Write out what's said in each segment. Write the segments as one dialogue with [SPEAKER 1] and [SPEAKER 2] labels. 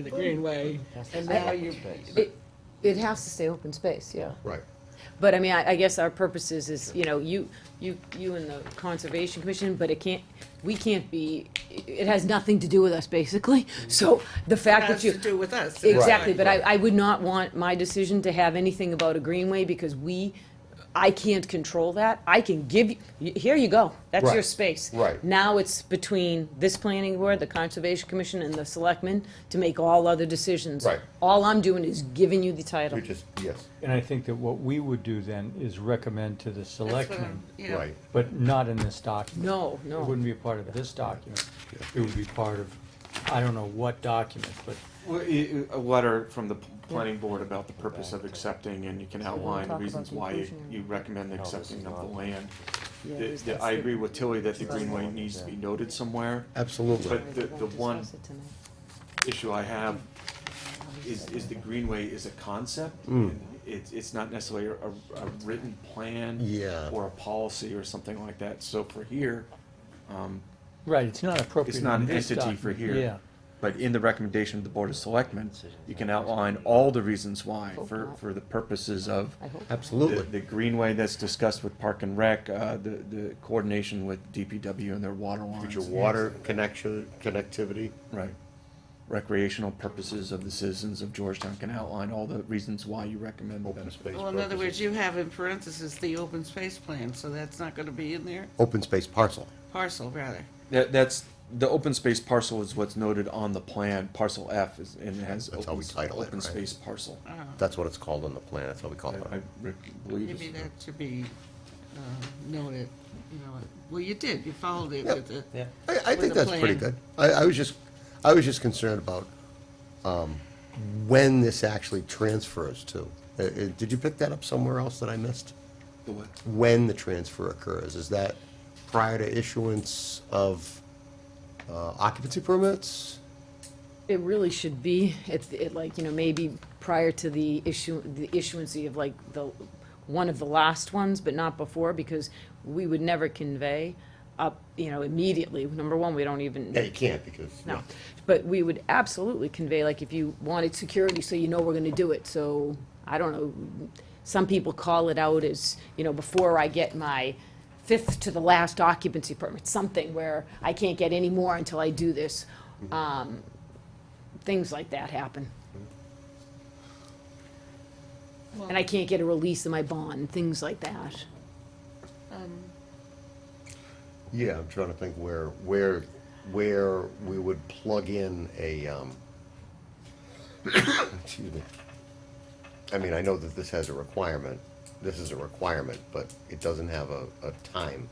[SPEAKER 1] in the greenway, and now you,
[SPEAKER 2] It, it has to stay open space, yeah.
[SPEAKER 3] Right.
[SPEAKER 2] But I mean, I, I guess our purpose is, is, you know, you, you, you and the Conservation Commission, but it can't, we can't be, it has nothing to do with us, basically. So the fact
[SPEAKER 1] has
[SPEAKER 2] that
[SPEAKER 1] to
[SPEAKER 2] you.
[SPEAKER 1] do with us.
[SPEAKER 2] Exactly, but I, I would not want my decision to have anything about a greenway because we, I can't control that. I can give, you here you go, that's your
[SPEAKER 3] Right,
[SPEAKER 2] space.
[SPEAKER 3] right.
[SPEAKER 2] Now it's between this planning board, the Conservation Commission, and the selectmen to make all other decisions.
[SPEAKER 3] Right.
[SPEAKER 2] All I'm doing is giving you the title.
[SPEAKER 3] You just, yes,
[SPEAKER 4] And I think that what we would do then is recommend to the
[SPEAKER 1] That's what I'm-
[SPEAKER 4] selectmen,
[SPEAKER 1] yeah.
[SPEAKER 3] right,
[SPEAKER 4] but not in this document.
[SPEAKER 2] No,
[SPEAKER 4] It
[SPEAKER 2] no.
[SPEAKER 4] wouldn't be a part of this document. It would be part of, I don't know what document, but
[SPEAKER 5] Well, i- i- A letter from the p- planning board about the purpose of accepting, and you can outline
[SPEAKER 2] talk
[SPEAKER 5] the
[SPEAKER 2] about
[SPEAKER 5] reasons
[SPEAKER 2] the
[SPEAKER 5] why you-
[SPEAKER 2] inclusionary.
[SPEAKER 5] you recommend the
[SPEAKER 6] No, Oh, this
[SPEAKER 5] accepting
[SPEAKER 6] is
[SPEAKER 5] of the
[SPEAKER 6] not-
[SPEAKER 5] land.
[SPEAKER 2] Yeah, we
[SPEAKER 5] The- the- I
[SPEAKER 2] discussed
[SPEAKER 5] agree
[SPEAKER 2] it.
[SPEAKER 5] with Tilly that the
[SPEAKER 2] Discussed
[SPEAKER 5] greenway
[SPEAKER 6] it,
[SPEAKER 5] needs to
[SPEAKER 6] yeah.
[SPEAKER 5] be noted somewhere.
[SPEAKER 3] absolutely.
[SPEAKER 5] But the-
[SPEAKER 2] We won't
[SPEAKER 5] the one-
[SPEAKER 2] discuss it tonight.
[SPEAKER 5] Issue I have is, is the greenway is a concept. It's, it's not necessarily a, a written plan.
[SPEAKER 3] Yeah.
[SPEAKER 5] Or a policy or something like that. So for here, um,
[SPEAKER 4] Right, it's not appropriate.
[SPEAKER 5] It's not
[SPEAKER 4] in
[SPEAKER 5] an
[SPEAKER 4] this
[SPEAKER 5] entity for
[SPEAKER 4] document,
[SPEAKER 5] here.
[SPEAKER 4] Yeah.
[SPEAKER 5] But in the recommendation of the Board of Selectmen, you can outline all the reasons why
[SPEAKER 2] Hope
[SPEAKER 5] for,
[SPEAKER 2] not.
[SPEAKER 5] for the purposes of
[SPEAKER 2] I hope.
[SPEAKER 5] the,
[SPEAKER 3] Absolutely,
[SPEAKER 5] the greenway that's discussed with Park and Rec, uh, the, the coordination with DPW and their water
[SPEAKER 3] future
[SPEAKER 5] lines.
[SPEAKER 3] water connection, connectivity,
[SPEAKER 5] Right. Recreational purposes of the citizens of Georgetown can outline all the reasons why you recommend the
[SPEAKER 3] open
[SPEAKER 5] benefit.
[SPEAKER 3] space.
[SPEAKER 1] Well, in other words,
[SPEAKER 3] purposes.
[SPEAKER 1] you have in parentheses the open space plan, so that's not gonna be in there,
[SPEAKER 3] Open space parcel,
[SPEAKER 1] parcel rather.
[SPEAKER 5] That, that's, the open space parcel is what's noted on the plan, parcel F is, and it has.
[SPEAKER 3] That's how
[SPEAKER 5] open
[SPEAKER 3] we
[SPEAKER 5] s-
[SPEAKER 3] title it,
[SPEAKER 5] Open
[SPEAKER 3] right?
[SPEAKER 5] space parcel.
[SPEAKER 3] that's what it's called on the plan, that's what we call
[SPEAKER 5] I
[SPEAKER 3] it.
[SPEAKER 5] re- believe
[SPEAKER 1] Uh, Maybe
[SPEAKER 5] it's.
[SPEAKER 1] that should be uh, noted, you know, well, you did, you followed it
[SPEAKER 3] Yep.
[SPEAKER 1] with the.
[SPEAKER 3] I, I
[SPEAKER 1] with
[SPEAKER 3] think
[SPEAKER 1] a
[SPEAKER 3] that's pretty
[SPEAKER 1] plan.
[SPEAKER 3] good. I, I was just, I was just concerned about, um, when this actually transfers to. Uh, uh, did you pick that up somewhere else that I missed?
[SPEAKER 5] the what?
[SPEAKER 3] When the transfer occurs, is that prior to issuance of, uh, occupancy permits?
[SPEAKER 2] It really should be, at, at like, you know, maybe prior to the issue, the issuancy of like the, one of the last ones, but not before, because we would never convey up, you know, immediately. Number one, we don't even.
[SPEAKER 3] Yeah, you can't because.
[SPEAKER 2] No, but we would absolutely convey, like, if you wanted security, so you know we're gonna do it, so, I don't know, some people call it out as, you know, before I get my fifth to the last occupancy permit, something where I can't get any more until I do this. Um, Things like that happen. And I can't get a release of my bond, things like that.
[SPEAKER 3] Yeah, I'm trying to think where, where, where we would plug in a, um, excuse me. I mean, I know that this has a requirement, this is a requirement, but it doesn't have a, a time,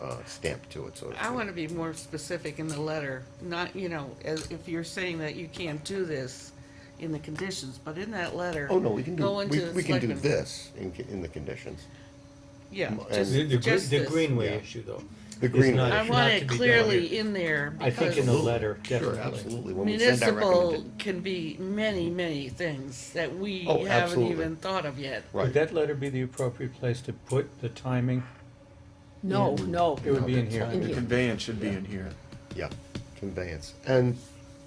[SPEAKER 3] uh, stamp to it, so. to
[SPEAKER 1] I
[SPEAKER 3] speak.
[SPEAKER 1] wanna be more specific in the letter, not, you know, as- if you're saying that you can't do this in the conditions, but in that letter.
[SPEAKER 3] Oh, no, we can do,
[SPEAKER 1] go into
[SPEAKER 3] we,
[SPEAKER 1] the
[SPEAKER 3] we can do
[SPEAKER 1] selectmen-
[SPEAKER 3] this in, in the conditions.
[SPEAKER 1] Yeah,
[SPEAKER 3] And-
[SPEAKER 1] just,
[SPEAKER 4] The, the,
[SPEAKER 1] just
[SPEAKER 4] gre- the
[SPEAKER 1] this.
[SPEAKER 4] greenway
[SPEAKER 3] Yeah.
[SPEAKER 4] issue though.
[SPEAKER 3] The
[SPEAKER 4] is
[SPEAKER 3] greenway.
[SPEAKER 4] not-
[SPEAKER 1] I
[SPEAKER 4] should
[SPEAKER 1] want
[SPEAKER 4] not
[SPEAKER 1] it
[SPEAKER 4] to be done
[SPEAKER 1] clearly
[SPEAKER 4] here.
[SPEAKER 1] in there
[SPEAKER 4] I think in the
[SPEAKER 1] because
[SPEAKER 4] letter,
[SPEAKER 3] Sure,
[SPEAKER 4] definitely.
[SPEAKER 3] absolutely. When we send our
[SPEAKER 1] municipal
[SPEAKER 3] recommended-
[SPEAKER 1] can be many, many things that we
[SPEAKER 3] Oh,
[SPEAKER 1] haven't
[SPEAKER 3] absolutely.
[SPEAKER 1] even thought of yet.
[SPEAKER 4] Would
[SPEAKER 3] Right.
[SPEAKER 4] that letter be the appropriate place to put the timing?
[SPEAKER 2] No, no,
[SPEAKER 4] It would be in here.
[SPEAKER 2] In
[SPEAKER 5] The
[SPEAKER 2] here.
[SPEAKER 5] conveyance should be in here.
[SPEAKER 3] Yeah, conveyance. And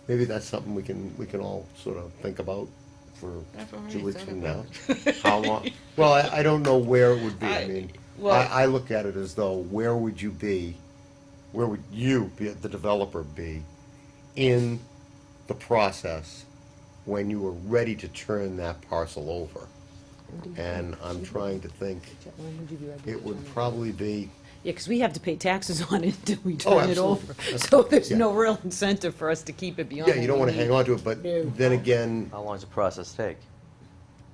[SPEAKER 3] maybe that's something we can, we can all sort of think about for
[SPEAKER 1] I've already
[SPEAKER 3] two weeks
[SPEAKER 1] thought
[SPEAKER 3] from now.
[SPEAKER 1] about
[SPEAKER 3] How long, well, I, I don't know where it would be. I
[SPEAKER 1] I-
[SPEAKER 3] mean, I,
[SPEAKER 1] well-
[SPEAKER 3] I look at it as though, where would you be, where would you, be the developer, be in the process when you were ready to turn that parcel over? And I'm trying to think, it would probably be,
[SPEAKER 2] Yeah, because we have to pay taxes on it until we
[SPEAKER 3] Oh,
[SPEAKER 2] turn it over.
[SPEAKER 3] absolutely.
[SPEAKER 2] So there's
[SPEAKER 3] Yeah.
[SPEAKER 2] no real incentive for us to keep it beyond.
[SPEAKER 3] yeah, you don't
[SPEAKER 2] what
[SPEAKER 3] wanna
[SPEAKER 2] we
[SPEAKER 3] hang
[SPEAKER 2] need
[SPEAKER 3] on to it, but
[SPEAKER 2] No.
[SPEAKER 3] then again,
[SPEAKER 6] How long does the process take?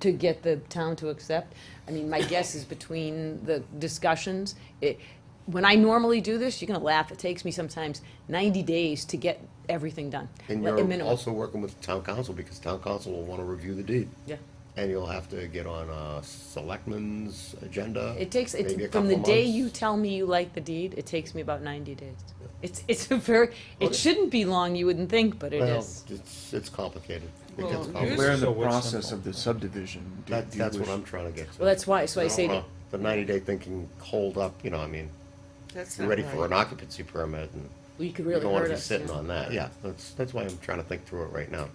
[SPEAKER 2] To get the town to accept. I mean, my guess is between the discussions, it, when I normally do this, you're gonna laugh, it takes me sometimes ninety days to get everything done.
[SPEAKER 3] And
[SPEAKER 2] Like, a
[SPEAKER 3] you're
[SPEAKER 2] minimum.
[SPEAKER 3] also working with town council, because town council will wanna review the deed.
[SPEAKER 2] Yeah.
[SPEAKER 3] And you'll have to get on a selectman's agenda.
[SPEAKER 2] It takes,
[SPEAKER 3] maybe a
[SPEAKER 2] it, from the
[SPEAKER 3] couple
[SPEAKER 2] day
[SPEAKER 3] months.
[SPEAKER 2] you tell me you like the deed, it takes me about ninety days. It's, it's a very, it
[SPEAKER 3] Okay.
[SPEAKER 2] shouldn't be long, you wouldn't think, but it
[SPEAKER 3] Well,
[SPEAKER 2] is.
[SPEAKER 3] it's, it's complicated. It
[SPEAKER 1] Well,
[SPEAKER 3] gets
[SPEAKER 1] yours-
[SPEAKER 3] complicated.
[SPEAKER 5] We're in the
[SPEAKER 4] So what's
[SPEAKER 5] process
[SPEAKER 4] simple?
[SPEAKER 5] of the subdivision. Do-
[SPEAKER 3] That,
[SPEAKER 5] do you
[SPEAKER 3] that's what
[SPEAKER 5] wish-
[SPEAKER 3] I'm trying to get to.
[SPEAKER 2] Well, that's why, so I
[SPEAKER 3] don't
[SPEAKER 2] say that,
[SPEAKER 3] wanna- The ninety-day thinking hold up, you know, I mean,
[SPEAKER 1] That's
[SPEAKER 3] you're
[SPEAKER 1] not
[SPEAKER 3] ready for
[SPEAKER 1] right.
[SPEAKER 3] an occupancy permit, and
[SPEAKER 2] you could
[SPEAKER 3] you
[SPEAKER 2] really
[SPEAKER 3] don't wanna
[SPEAKER 2] hurt
[SPEAKER 3] be
[SPEAKER 2] us.
[SPEAKER 3] sitting
[SPEAKER 2] yeah.
[SPEAKER 3] on that, yeah, that's, that's why I'm trying to think through it right now.